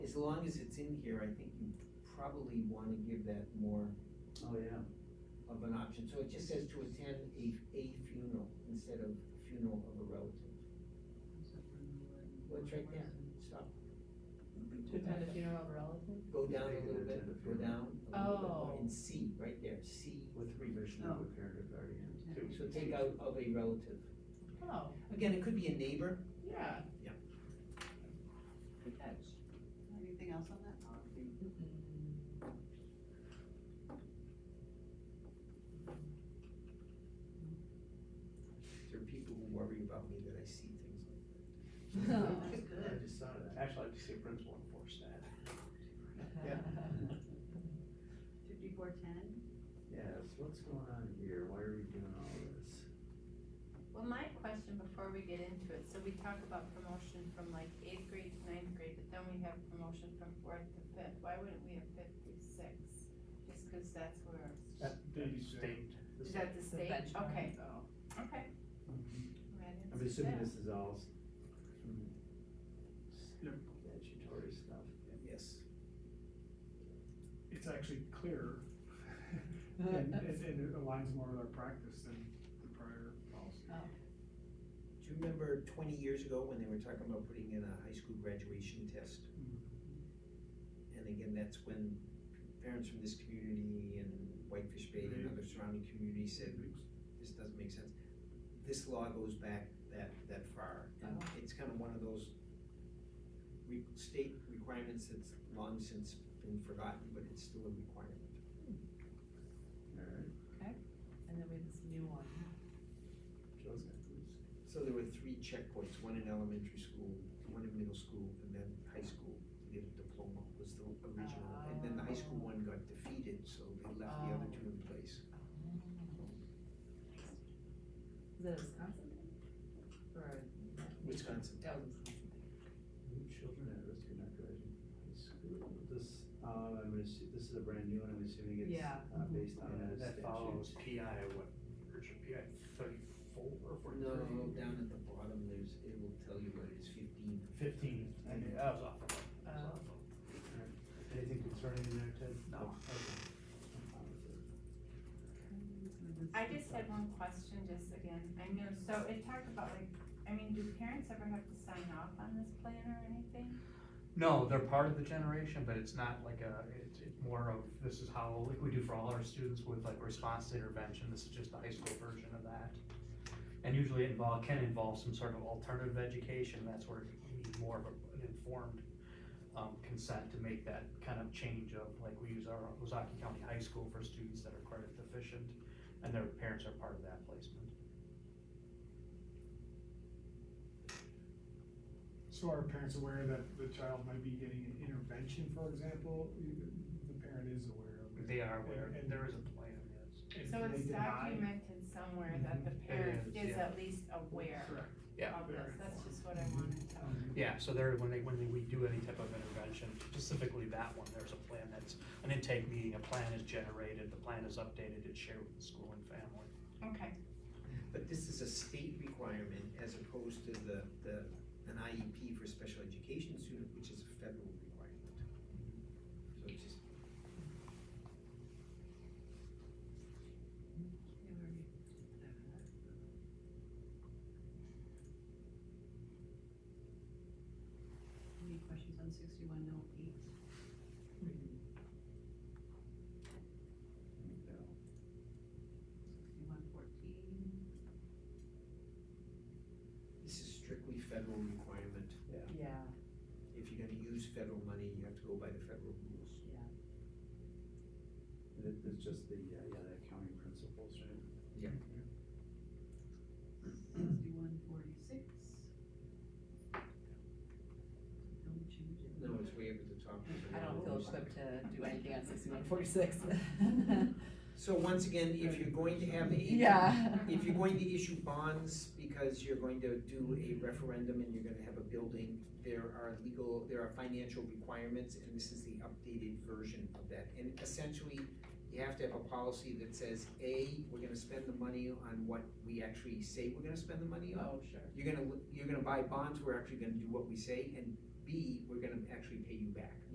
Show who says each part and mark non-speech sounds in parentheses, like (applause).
Speaker 1: as long as it's in here, I think you probably wanna give that more
Speaker 2: Oh, yeah.
Speaker 1: of an option, so it just says to attend a, a funeral instead of funeral of a relative. Well, it's right there, stop,
Speaker 3: To attend a funeral of a relative?
Speaker 1: go down a little bit, go down a little bit more,
Speaker 3: Oh.
Speaker 1: and C, right there, C,
Speaker 2: With permission of a parent or guardian. too.
Speaker 1: so
Speaker 2: (laughs)
Speaker 1: take out of a relative.
Speaker 3: Oh,
Speaker 1: Again, it could be a neighbor,
Speaker 3: yeah.
Speaker 1: Yeah.
Speaker 3: Good catch.
Speaker 4: Anything else on that policy?
Speaker 3: Mm-hmm.
Speaker 1: there are people who worry about me that I see things like
Speaker 3: (laughs)
Speaker 4: That's
Speaker 2: Oh, I
Speaker 4: good.
Speaker 2: just thought of that. Actually, I'd like to see a principal enforce that. Yeah.
Speaker 4: Fifty-four ten?
Speaker 2: Yes, what's going on here? Why are we doing all this?
Speaker 5: Well, my question before we get into it, so we talk about promotion from like eighth grade to ninth grade, but then we have promotion from fourth to fifth, why wouldn't we have fifth through sixth? Just cause that's where,
Speaker 2: That, that state. the state-
Speaker 5: is that the state? Okay, okay. Right,
Speaker 2: Mm-hmm. I'm
Speaker 5: it's
Speaker 2: assuming
Speaker 5: that.
Speaker 2: this is all s- from statutory stuff.
Speaker 1: that, yes.
Speaker 6: it's actually clearer and, and, and it aligns more with our practice than the prior policy.
Speaker 1: Do you remember twenty years ago when they were talking about putting in a high school graduation test?
Speaker 7: Mm-hmm.
Speaker 1: And again, that's when parents from this community and Whitefish Bay and other surrounding communities said, this doesn't make sense. This law goes back that, that far, and
Speaker 3: Oh.
Speaker 1: it's kind of one of those re- state requirements that's long since been forgotten, but it's still a requirement.
Speaker 2: Alright,
Speaker 3: And then we have this new one.
Speaker 2: Joe's got these.
Speaker 1: So there were three checkpoints, one in elementary school, one in middle school, and then high school. The diploma was the original, and then the high school one got defeated, so they left the other two in place.
Speaker 3: Is that a Wisconsin thing? Or?
Speaker 1: Wisconsin.
Speaker 3: That was Wisconsin thing.
Speaker 2: New children at risk of not graduating high school. This, uh, I'm gonna assu- this is a brand new one, I'm assuming it's,
Speaker 3: Yeah.
Speaker 2: uh, based on a
Speaker 7: That
Speaker 2: statute.
Speaker 7: follows PI, what, version PI thirty-four or
Speaker 1: No,
Speaker 7: forty-three?
Speaker 1: down at the bottom, there's, it will tell you what it is, fifteen.
Speaker 7: Fifteen, I mean, that was awful. That was
Speaker 3: Oh.
Speaker 7: awful.
Speaker 2: Anything concerning Uh, in there, Ted?
Speaker 7: No.
Speaker 2: Okay. I'm fine with it.
Speaker 5: I just had one question, just again, I know, so it talked about like, I mean, do parents ever have to sign off on this plan or anything?
Speaker 8: No, they're part of the generation, but it's not like a, it's, it's more of, this is how, like we do for all our students with like response to intervention, this is just the high school version of that. And usually it involve, can involve some sort of alternative education, that's where you need more of a- an informed, um, consent to make that kind of change of, like, we use our Ozaki County High School for students that are credit deficient, and their parents are part of that placement.
Speaker 6: So are parents aware that the child might be getting an intervention, for example? The parent is aware of it.
Speaker 8: They are aware,
Speaker 6: And- and-
Speaker 8: there is a plan, yes.
Speaker 6: And
Speaker 5: So
Speaker 6: they
Speaker 5: it's
Speaker 6: deny-
Speaker 5: documented somewhere that the
Speaker 8: Mhm. It
Speaker 5: parent
Speaker 8: is,
Speaker 5: is
Speaker 8: yeah.
Speaker 5: at least aware
Speaker 6: Correct. Mm-hmm.
Speaker 8: Yeah.
Speaker 5: of this,
Speaker 6: Very
Speaker 5: that's just what I wanted to.
Speaker 8: Yeah, so there, when they, when they- we do any type of intervention, specifically that one, there's a plan that's, an intake meeting, a plan is generated, the plan is updated, it's shared with the school and family.
Speaker 5: Okay,
Speaker 1: But this is a state requirement as opposed to the, the, an IEP for special education student, which is a federal requirement. So it's just,
Speaker 4: Any questions on sixty-one oh eight?
Speaker 2: No.
Speaker 4: Sixty-one fourteen?
Speaker 1: this is strictly federal requirement.
Speaker 3: Yeah,
Speaker 1: If you're gonna use federal money, you have to go by the federal rules.
Speaker 3: yeah.
Speaker 2: It- It's just the, uh, yeah, the accounting principles, right?
Speaker 4: Sixty-one forty-six. Don't change it.
Speaker 1: No, it's way up at the top.
Speaker 3: I don't feel equipped to do anything on sixty-one
Speaker 4: (laughs)
Speaker 3: forty-six.
Speaker 1: So once again, if you're going to have a.
Speaker 3: Yeah.
Speaker 1: If you're going to issue bonds because you're going to do a referendum and you're gonna have a building, there are legal, there are financial requirements, and this is the updated version of that. And essentially, you have to have a policy that says, A, we're gonna spend the money on what we actually say we're gonna spend the money on.
Speaker 3: Oh, sure.
Speaker 1: You're gonna, you're gonna buy bonds, we're actually gonna do what we say, and B, B, we're gonna actually pay you back.